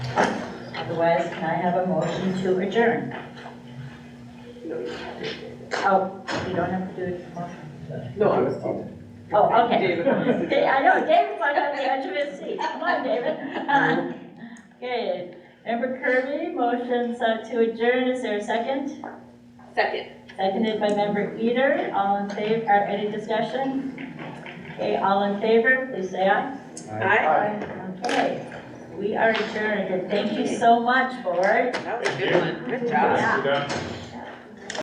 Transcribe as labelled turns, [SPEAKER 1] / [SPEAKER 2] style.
[SPEAKER 1] Otherwise, can I have a motion to adjourn? Oh, you don't have to do it tomorrow.
[SPEAKER 2] No, I was.
[SPEAKER 1] Oh, okay.
[SPEAKER 2] David wants to-
[SPEAKER 1] Da- I know, David's like on the edge of his seat. Come on, David. Okay, member Kirby, motions uh, to adjourn. Is there a second?
[SPEAKER 3] Second.
[SPEAKER 1] Seconded by member Eater. All in favor, or any discussion? Okay, all in favor, please say aye.
[SPEAKER 3] Aye.
[SPEAKER 1] Okay, we are adjourned, and thank you so much, board.
[SPEAKER 3] That was a good one. Good job.
[SPEAKER 1] Yeah.
[SPEAKER 4] Good job.